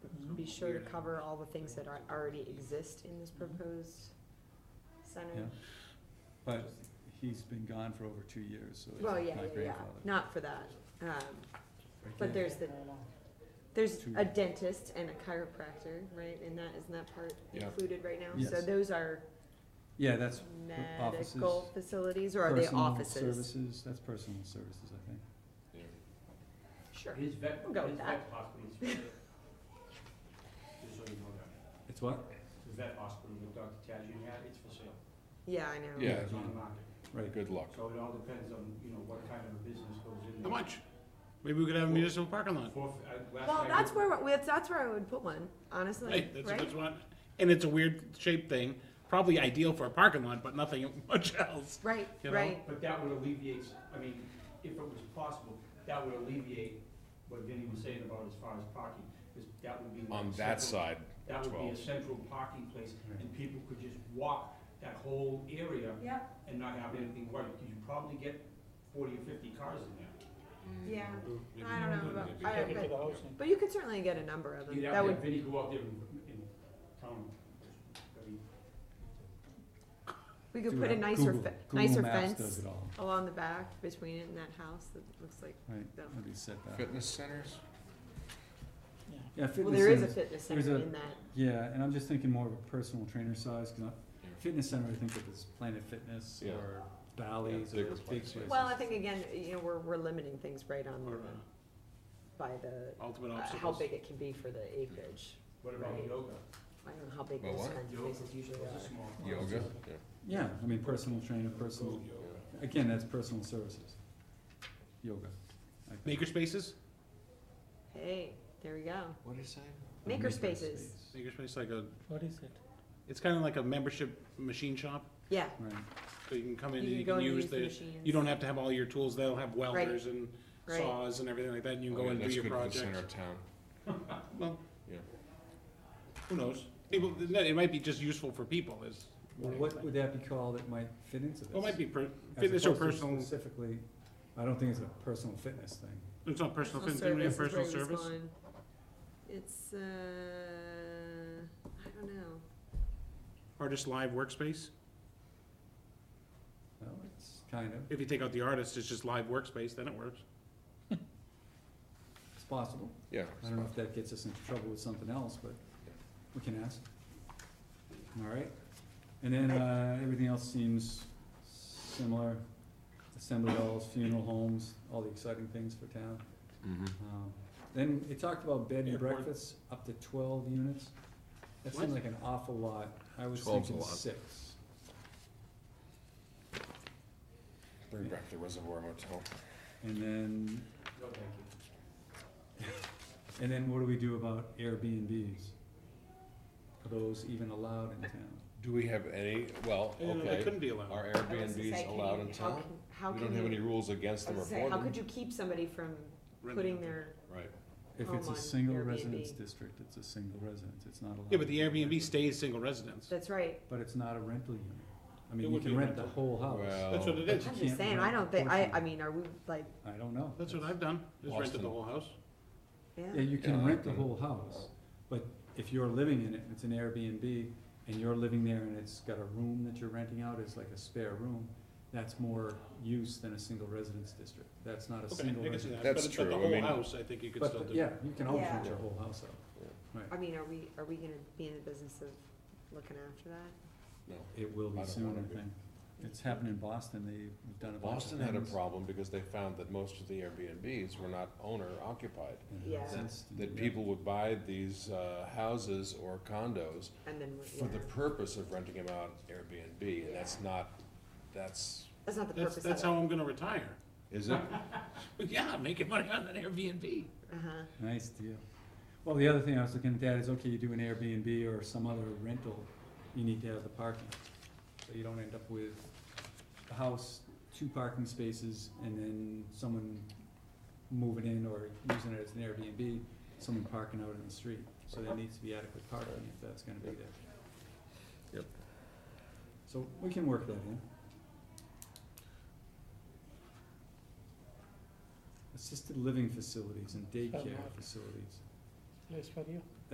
Mhm. sure to weird. cover all the things that are, already exist in this Mhm. proposed Yeah. center. But he's been gone for over two years, so he's Well, like yeah, my yeah, yeah, grandfather. not for that, um, Yeah. but there's the, there's Two. a dentist and a chiropractor, right, and that, isn't that part Yeah. included right now? So Yes. those are Yeah, that's offices. medical facilities, or are they personal offices? Services, that's personal services, I think. Yeah. Sure, His vet, We'll his go with vet hospital is. Just so you know that. It's what? The vet hospital that Dr. Tajin had, it's for sale. yeah, I know. Yeah. It's on the market. Right, Good luck. So it all depends on, you know, what kind of a business goes in there. How much? Maybe we could have a municipal parking lot. Four, I, last Well, I that's looked- where, we- that's where I would put one, honestly, Hey, that's a right? good one. And it's a weird shaped thing, probably ideal for a parking lot, but nothing much else. Right, You know? right, But that would alleviate, I mean, if it was possible, that would alleviate what Vinny was saying about as far as parking, because that would be. like On a that central- side, That would be a 12. central parking place, and Right. people could just walk that whole area yeah, and not have anything worried, because you probably get forty or fifty cars in there. yeah, I don't know about, I don't, but- Yeah. But you could certainly get a number of them. You'd That have to would, have Vinny go out there and, and tell them, every we could Do put a it. nicer, Google- fe- Google nicer Maps does fence it all. along the back between it and that house that looks like, Right, Yeah. that'd be set back. Fitness centers? Yeah, well, fitness there is a centers, fitness there's center a- in that. yeah, and I'm just thinking more of a personal trainer size, cause I, Yeah. fitness center, I think of as Planet Fitness Yeah. or Bally's or bigger those big places. places. Well, I think again, you know, we're, we're limiting things right on Or, the, uh, by the, Ultimate uh, how obstacles. big it can be for the acreage. what about Right. yoga? I don't know how big Well, those what? kinds of Yoga. places usually Those are are. small cars. Yoga? Yeah. Yeah, I mean, personal trainer, personal, again, that's personal services. Yoga. I think. Maker spaces? Hey, there we go. What is that? Or Maker spaces. space. Maker space like a, What is it? it's kind of like a membership machine shop, Yeah. Right, so you can come in and You you can go can and use use the the, machines. you don't have to have all your tools, they'll have welders and right. saws and everything like that, and you can Oh, go yeah, and do that's your good for the project. center of town. Well, Yeah. who knows? People, it might be just useful for people is, well, what would that be called that might fit into this? well, it might be per- As fitness or opposed to personal, Specifically, I don't think it's a personal fitness thing. it's not personal, Personal fin- didn't we have service personal is where he was service? going. It's, uh, I don't know. Artist live workspace? Well, it's kind of, If you take out the artist, it's just live workspace, then it works. it's possible. Yeah. I don't know if that gets us into trouble with something else, but we can ask. All right, and then, uh, everything else seems similar, assembly halls, funeral homes, all the exciting things for town. Mm-hmm. Um, Then it talked about bed and Airport. breakfast, up to twelve units. That seems What? like an awful lot, I was 12 's a thinking lot. six. Bring back the Reservoir Motel. And then, No, thank you. and then what do we do about Airbnbs? Are those even allowed in town? Do we have any, well, You know, They okay, couldn't be allowed. are I was gonna say, Airbnbs can allowed you- in how town? can- How We can don't have you- any rules against I them or was for gonna say, how could you them. keep somebody from Renting putting it. their, Right. If it's Home a on single Airbnb. residence district, it's a single residence, it's not allowed. Yeah, but the Airbnb stays single residence. that's right. But it's not a rental unit. I mean, It you would be can rent the rental. whole house. Well- That's what it But is. you I'm can't just saying, I rent don't think, I, portion. I mean, are we like, I don't know. That's what I've done, just rented the Austin. whole house. Yeah, yeah, you can Yeah, rent the I've whole house, but if you're living in it, it's an Airbnb, and you're living there and it's got a room that you're renting out, it's like a spare room, that's more use than a single residence district. That's not a Okay, single I can see residence. that. That's But- but true, I the whole mean- house, I think you could still But, do. yeah, you can always Yeah. rent your whole house out. I mean, are we, are we gonna be in the business of looking after that? No. It will I be don't soon, wanna I be. think. It's happened in Boston, they've done a bunch of Boston had a things. problem because they found that most of the Airbnbs were not owner occupied. And Yeah. since- That yeah. people would buy these, uh, houses or condos And then, we're- for the yeah. purpose of renting them out Airbnb, and that's not, that's, that's not the That's, purpose of it. that's how I'm gonna retire. is it? Yeah, making money on an Airbnb. Uh-huh, Nice deal. Well, the other thing I was looking at is, okay, you do an Airbnb or some other rental, you need to have the parking. So you don't end up with a house, two parking spaces, and then someone moving in or using it as an Airbnb, someone parking out in the street. So there needs to be adequate parking if that's gonna be there. Yep. So we can work that in. Assisted living facilities and daycare facilities. Place for you?